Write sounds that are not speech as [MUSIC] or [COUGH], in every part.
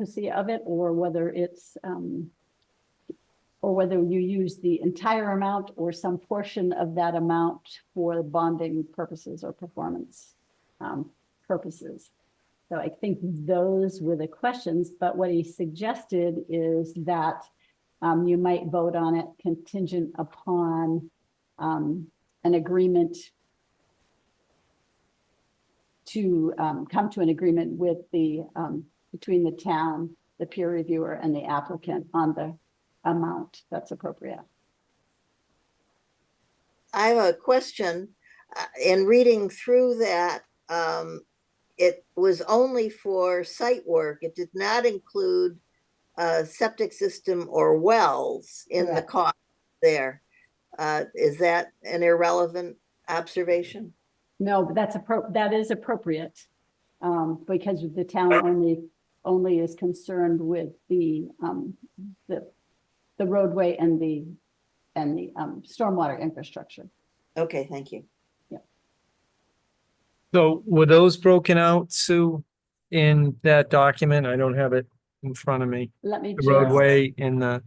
efficacy of it or whether it's, um, or whether you use the entire amount or some portion of that amount for bonding purposes or performance um, purposes. So I think those were the questions, but what he suggested is that um, you might vote on it contingent upon um, an agreement to um, come to an agreement with the, um, between the town, the peer reviewer and the applicant on the amount that's appropriate. I have a question. Uh, In reading through that, um, it was only for site work. It did not include uh, septic system or wells in the Correct. cost there. Uh, is that an irrelevant observation? No, but that's appro, that is appropriate. Um, because the town only, only is concerned with the, um, the, the roadway and the, and the, um, stormwater infrastructure. Okay, thank you. So were those broken out, Sue, in that document? I don't have it in front of me. Let me. The just- roadway and the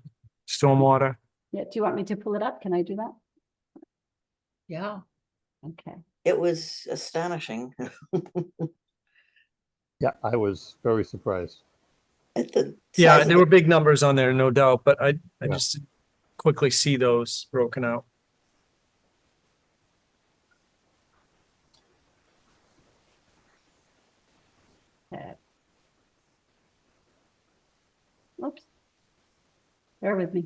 stormwater. Yeah, do you want me to pull it up? Can I do that? Yeah, Okay, It was astonishing [LAUGHS] Yeah, I was very surprised. at the. Yeah, size there of were it. big numbers on there, no doubt, but I, I Yeah. just didn't quickly see those broken out. oops. Bear with me.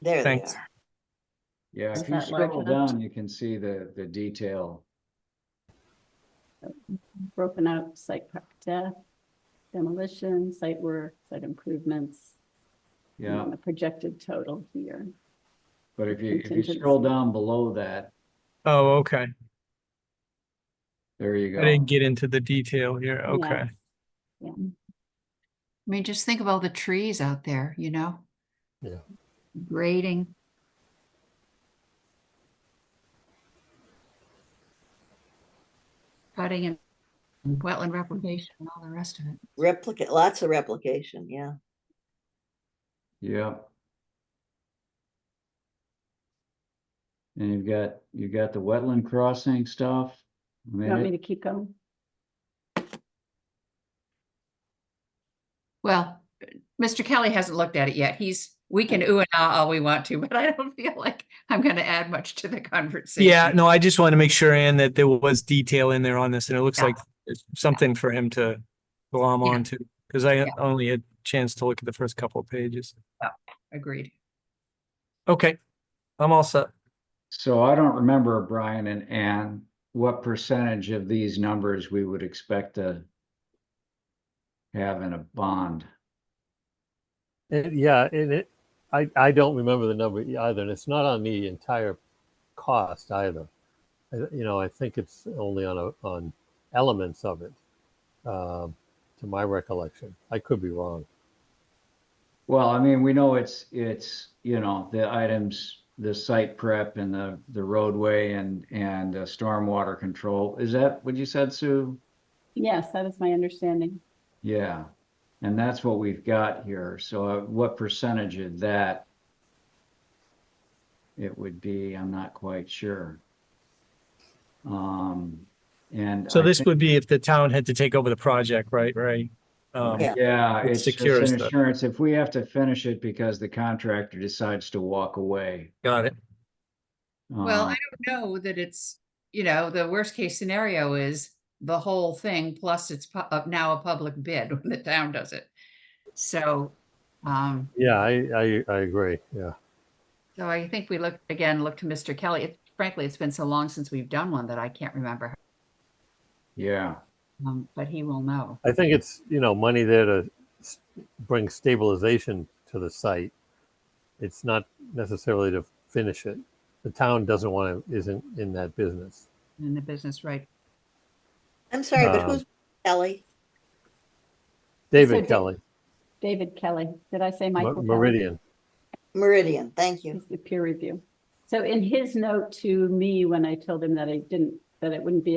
There they Thanks. are. Yeah, Is if you that large scroll enough? down, you can see the, the detail. broken out site prep death, demolition, site work, site improvements. and Yeah, then The projected total here. but if you, if you Contingency. scroll down below that, Oh, okay. there you I didn't go. get into the detail here. Yeah. Okay. I mean, just think of all the trees out there, you know? Yeah. Grading. Cutting and wetland replication and all the rest of it. Replicate, lots of replication, yeah. Yeah. And you've got, you've got the wetland crossing stuff. I You mean, want me it- to keep going? Well, Mr. Kelly hasn't looked at it yet. He's, we can ooh and ah all we want to, [LAUGHS] but I don't feel like I'm gonna add much to the conversation. Yeah, no, I just wanted to make sure, Ann, that there was detail in there on this, and it looks Yeah. like it's something for him to glom Yeah. onto, because I Yeah. only had a chance to look at the first couple of pages. Agreed. Okay, I'm all set. So I don't remember, Brian and Ann, what percentage of these numbers we would expect to have in a bond. It- yeah, and it, I, I don't remember the number either, and it's not on the entire cost either. I, you know, I think it's only on a, on elements of it, um, to my recollection. I could be wrong. Well, I mean, we know it's, it's, you know, the items, the site prep and the, the roadway and, and uh, stormwater control. Is that what you said, Sue? Yes, that is my understanding. Yeah. And that's what we've got here. So uh, what percentage of that it would be, I'm not quite sure. Um, and. So I this think- would be if the town had to take over the project, right, right? Um, Yeah. Yeah, It it's it's secures an the- insurance. If we have to finish it because the contractor decides to walk away. Got it. Well, um, I don't know that it's, you know, the worst case scenario is the whole thing, plus it's pu- uh, now a public bid [LAUGHS] when the town does it. So, um, Yeah, I, I, I agree. Yeah. so I think we look, again, look to Mr. Kelly. It- Frankly, it's been so long since we've done one that I can't remember. Yeah. Um, but he will know. I think it's, you know, money there to s- bring stabilization to the site. It's not necessarily to finish it. The town doesn't want to, isn't in that business. in the business, right? I'm sorry, but Um, who's Ellie? So David Da- Kelly, David Kelly, did I say Mo- Michael? Kelly? Meridian. Meridian, thank you. He's the peer review. So in his note to me, when I told him that I didn't, that it wouldn't be